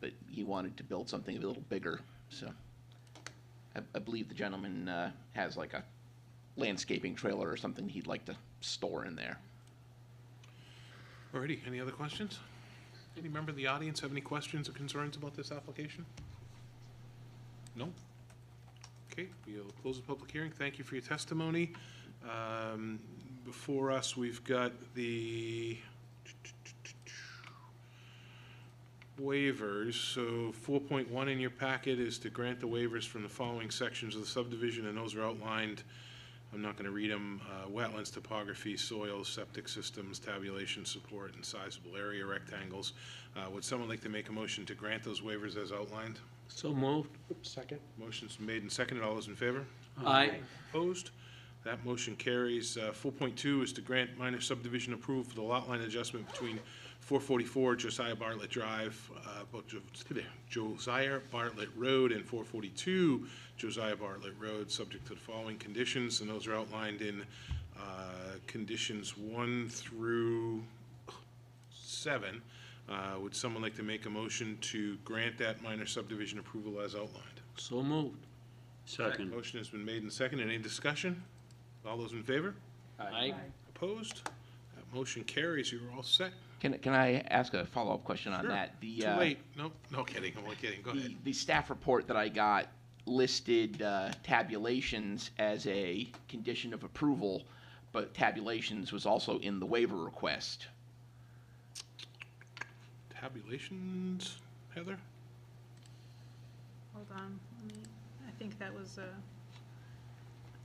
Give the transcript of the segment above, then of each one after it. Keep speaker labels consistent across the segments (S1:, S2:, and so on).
S1: but he wanted to build something a little bigger, so. I, I believe the gentleman, uh, has like a landscaping trailer or something he'd like to store in there.
S2: Alrighty, any other questions? Any member of the audience have any questions or concerns about this application? No? Okay, we'll close the public hearing. Thank you for your testimony. Um, Before us, we've got the waivers. So four point one in your packet is to grant the waivers from the following sections of the subdivision, and those are outlined I'm not gonna read them, uh, wetlands, topography, soils, septic systems, tabulation support, and sizable area rectangles. Uh, would someone like to make a motion to grant those waivers as outlined?
S3: So moved.
S4: Second?
S2: Motion's made and seconded, all those in favor?
S3: Aye.
S2: Opposed? That motion carries. Uh, 4.2 is to grant minor subdivision approval for the lot line adjustment between 444 Josiah Bartlett Drive, uh, but Jo- Josiah Bartlett Road and 442 Josiah Bartlett Road, subject to the following conditions, and those are outlined in uh, conditions 1 through 7. Uh, Would someone like to make a motion to grant that minor subdivision approval as outlined?
S3: So moved.
S5: Second.
S2: Motion has been made and seconded. Any discussion? All those in favor?
S3: Aye.
S2: Opposed? That motion carries. You're all set.
S1: Can, can I ask a follow-up question on
S2: Sure.
S1: that? The,
S2: Too
S1: uh,
S2: late. No, no kidding. I'm only kidding. Go ahead.
S1: The, the staff report that I got listed uh, tabulations as a condition of approval, but tabulations was also in the waiver request.
S2: Tabulations, Heather?
S6: Hold on, let me, I think that was, uh,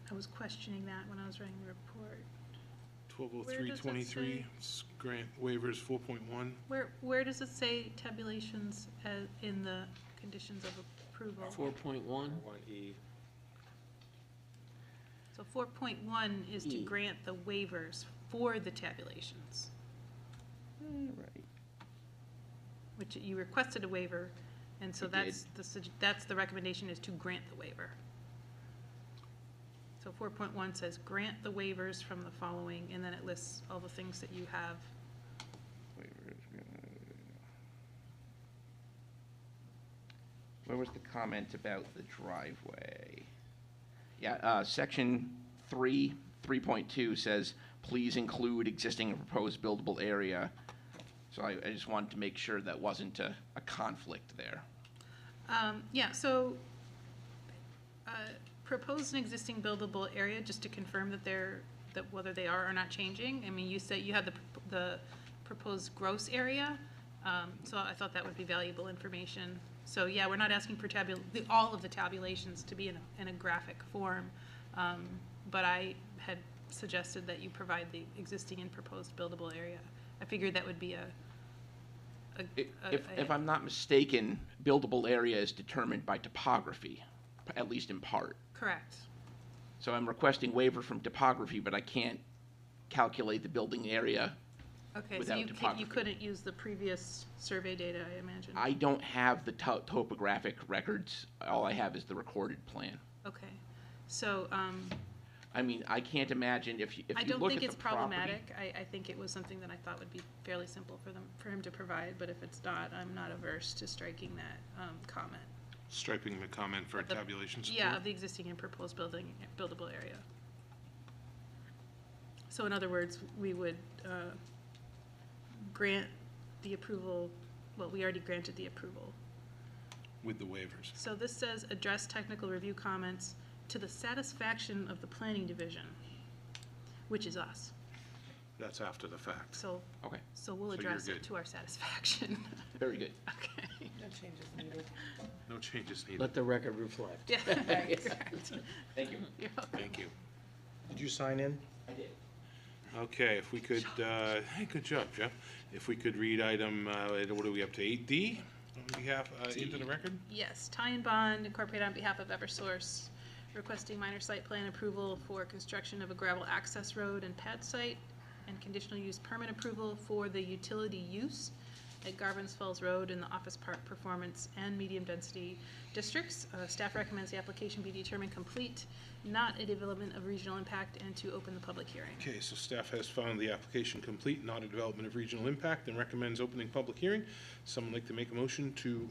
S6: I was questioning that when I was writing the report.
S2: Twelve oh
S6: Where
S2: three
S6: does it
S2: twenty-three,
S6: say?
S2: grant waivers four point one.
S6: Where, where does it say tabulations as, in the conditions of approval?
S3: Four point one.
S4: One E.
S6: So four point one is to
S3: E.
S6: grant the waivers for the tabulations,
S1: Right.
S6: which you requested a waiver, and so
S1: I did.
S6: that's, the sug- that's the recommendation is to grant the waiver. So four point one says grant the waivers from the following, and then it lists all the things that you have.
S1: Where was the comment about the driveway? Yeah, uh, section three, three point two says, please include existing and proposed buildable area. So I, I just wanted to make sure that wasn't a, a conflict there.
S6: Um, yeah, so, uh, proposed and existing buildable area, just to confirm that they're, that whether they are or not changing. I mean, you said you had the, prop- the proposed gross area, um, so I thought that would be valuable information. So, yeah, we're not asking for tabul, the, all of the tabulations to be in, a- in a graphic form. Um, but I had suggested that you provide the existing and proposed buildable area. I figured that would be a, a.
S1: I-
S6: a-
S1: If,
S6: a-
S1: if I'm not mistaken, buildable area is determined by topography, p- at least in part.
S6: Correct.
S1: So I'm requesting waiver from topography, but I can't calculate the building area.
S6: Okay, so
S1: without
S6: you can
S1: topography.
S6: you couldn't use the previous survey data, I imagine?
S1: I don't have the to- topographic records. All I have is the recorded plan.
S6: Okay, so, um,
S1: I mean, I can't imagine if you, if
S6: I
S1: you
S6: don't
S1: look at
S6: think
S1: the
S6: it's
S1: property-
S6: problematic. I, I think it was something that I thought would be fairly simple for them, for him to provide, but if it's not, I'm not averse to striking that, um, comment.
S2: Striping the comment for
S6: The-
S2: tabulation support.
S6: Yeah, of the existing and proposed building, buildable area. So in other words, we would, uh, grant the approval, well, we already granted the approval,
S2: With the waivers.
S6: So this says, address technical review comments to the satisfaction of the planning division, which is us.
S2: That's after the fact.
S6: So,
S1: Okay,
S6: so we'll
S2: So you're
S6: address
S2: good.
S6: it to our satisfaction.
S1: very good.
S6: Okay.
S4: No changes needed.
S2: No changes needed.
S3: Let the record reflect.
S6: Yeah, correct.
S1: Thank you.
S6: You're welcome.
S2: Thank you.
S4: Did you sign in?
S1: I did.
S2: Okay, if we could, uh, hey, good job, Jeff. If we could read item, uh, what are we up to, eight D? On behalf, uh, into the record?
S6: Yes, Ty and Bond Incorporated on behalf of Eversource, requesting minor site plan approval for construction of a gravel access road and pad site and conditional use permit approval for the utility use at Garvin's Falls Road in the Office Park Performance and Medium Density Districts. Uh, staff recommends the application be determined complete, not a development of regional impact, and to open the public hearing.
S2: Okay, so staff has found the application complete, not a development of regional impact, and recommends opening public hearing. Someone like to make a motion to